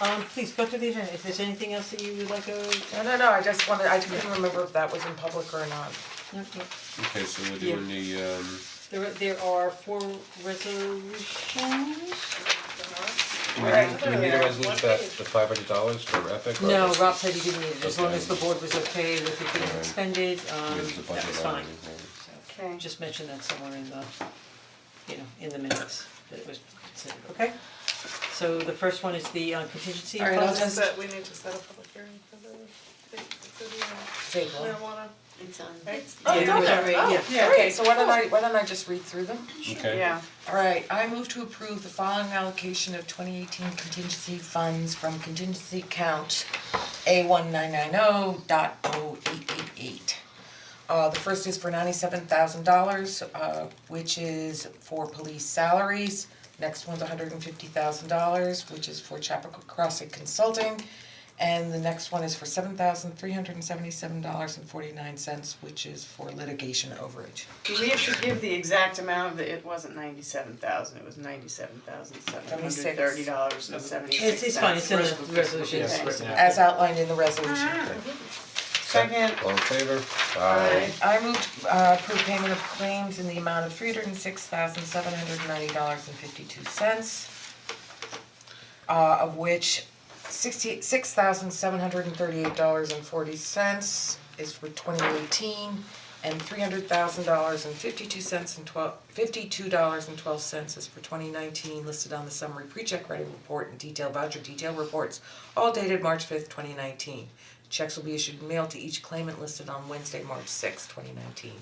Um, please go through the agenda, if there's anything else that you would like uh, to, No, no, no, I just wanted, I couldn't remember if that was in public or not. no, no. Okay, so we're doing the um There are- there are four resolutions. do we need, do we need a resolution about the five hundred dollars for Epic or No, just- Rob said he didn't need it, as long Okay. as the board was okay with it being Alright. expended, we um, have the that budget was line fine. or anything? Okay. Just mention that somewhere in the, you know, in the minutes, that it was considered, okay? So the first one is the uh, contingency Alright, I'll funds. just- Set, we need to set a public hearing for the, for Table. the marijuana. It's on, Right. it's Oh, Yeah, it's on there. right, Oh, yeah. Yeah, okay, so why don't I, why don't I just read through them? Okay. Yeah, Alright, I move to approve the following allocation of twenty eighteen contingency funds from contingency account A one nine nine oh dot oh eight eight eight. Uh, the first is for ninety-seven thousand dollars, uh, which is for police salaries. Next one's hundred and fifty thousand dollars, which is for Chapel Crossing Consulting. And the next one is for seven thousand three hundred and seventy-seven dollars and forty-nine cents, which is for litigation overage. we have to give the exact amount, of it It wasn't ninety-seven thousand, it was ninety-seven thousand seven hundred thirty dollars and seventy-six It's cents. it's fine, it's in the resolution, Okay. As outlined in the resolution. Second. All in favor? Aye. I moved uh approve payment of claims in the amount of three hundred and six thousand seven hundred ninety dollars and fifty two cents. Uh of which sixty six thousand seven hundred and thirty eight dollars and forty cents is for twenty eighteen. And three hundred thousand dollars and fifty two cents and twelve fifty two dollars and twelve cents is for twenty nineteen listed on the summary pre-check writing report and detailed voucher detail reports, all dated March fifth, twenty nineteen. Checks will be issued and mailed to each claimant listed on Wednesday, March sixth, twenty nineteen.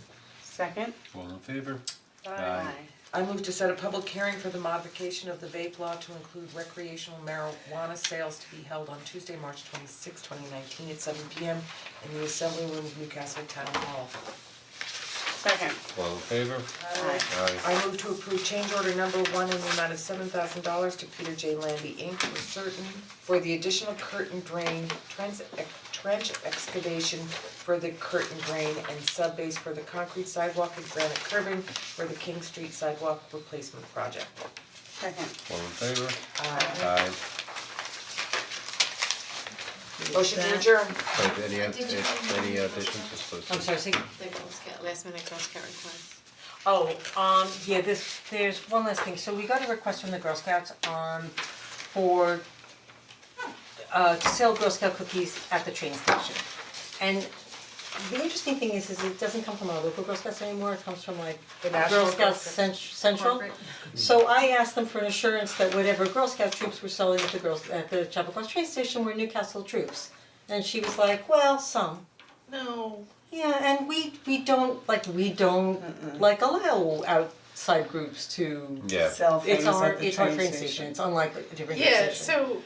Second. All in favor? Aye. I move to set a public hearing for the modification of the vape law to include recreational marijuana sales to be held on Tuesday, March twenty sixth, twenty nineteen at seven P M in the Assembly Room of Newcastle Town Hall. Second. All in favor? Aye. Aye. I move to approve change order number one in the amount of seven thousand dollars to Peter J. Landy Inc. for certain, for the additional curtain drain, trans- ex- trench excavation for the curtain drain and subbase for the concrete sidewalk and granite curbing for the King Street sidewalk replacement project. Second. All in favor? Uh, Aye. motion to adjourn. Have any Did you- any additions or I'm sorry, say, the Girl Scout, last minute Girl Scout request. oh, um, yeah, this, there's one last thing, so we got a request from the Girl Scouts, um, for uh, to sell Girl Scout cookies at the train station. And the interesting thing is, is it doesn't come from our local Girl Scouts anymore, it comes from like The National Girl Girl Scouts Scouts. Cent- Central. So I asked them for an assurance that whatever Girl Scout troops were selling at the girls, at the Chapel Cross train station were Newcastle troops. And she was like, well, some, No. yeah, and we we don't like we don't like allow outside groups to. Yeah. Sell things It's our at the it's our train train station. It's unlike a different train Yeah, station. so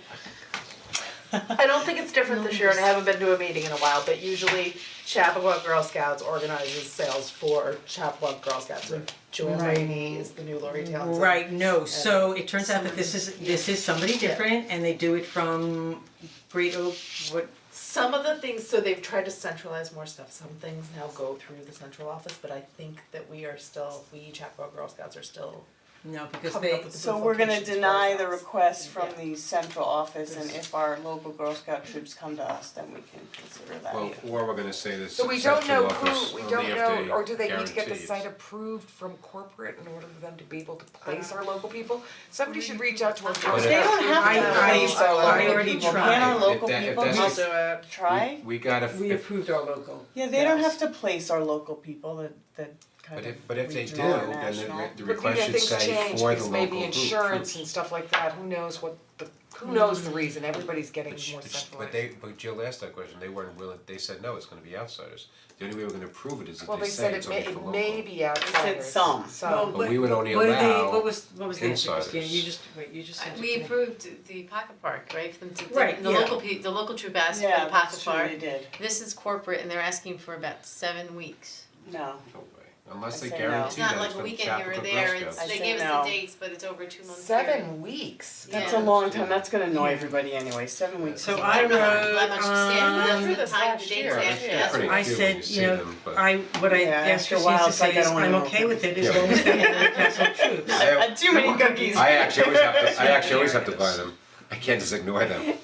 I don't think it's different this year and I haven't been to a meeting in a while, but usually Chappaqua Girl Scouts organizes sales for Chappaqua Girl Scouts. So Joanne Rainey is the new Lori Townsend. Right, no, so it turns out that this is this is somebody different and they do it from Great Oak, what, Some of the things, so they've tried to centralize more stuff, some things now go through the central office, but I think that we are still, we Chappaqua Girl Scouts are still no, because Coming they, up with So we're gonna Locations for deny the ourselves. request from Yeah. the central office and if our local Girl Scout troops come to us, then we can consider that. Well, or we're gonna say this So we don't central know office who, we only don't if know, or do they need to get the guarantee it's- site approved from corporate in order for them to be able to place our local people? Somebody should reach out to our Girl But Scouts. it- They don't have to I- I- place our I local already people, tried. can our If local that- if people that's just the- it. try? We we gotta, we if, approved our local. Yeah, they don't yes. have to place our local people, that that kind but of if, but if they do, regional or then the national. re- the But maybe request should things say change, for the because local maybe group. insurance and stuff like that, who knows what the, who knows the reason, everybody's getting But sh- more but sh- centralized. But they, but Jill asked that question, they weren't willing, they said, no, it's gonna be outsiders. The only way we're gonna prove it is Well, if they they say said it it's may, only for it local. may be outsiders. some. Some. But we would only What did they, allow what was, what was the answer, insiders. Christine, you just, wait, you just said. it. Uh, We approved the pocket park, right, for them to, Right, the yeah. local pe- the local troop asked for Yeah, the pocket that's true, park. they did, This is corporate and they're asking for about seven weeks. no, No way. Unless I they say no. guarantee It's not that it's like a from weekend here or Chappaqua there, Girl it's, Scouts. I they say gave no. us the dates, but it's over two months period. Seven weeks? that's a Yeah. long time, that's gonna annoy everybody anyway, seven weeks. So is a I long wrote, time. Not much Uh, staff, um, that's through the this time, last the dates year, they yeah. actually They're asked pretty for. I cute when you said, see you know, them, but- I, what I Yeah, asked her after a was while, to it's like say I is, don't wanna I'm know okay with it as Yeah. long as they have Newcastle troops. I had Uh, too many cookies. I actually always have to, I actually always have to buy them, I can't just ignore them.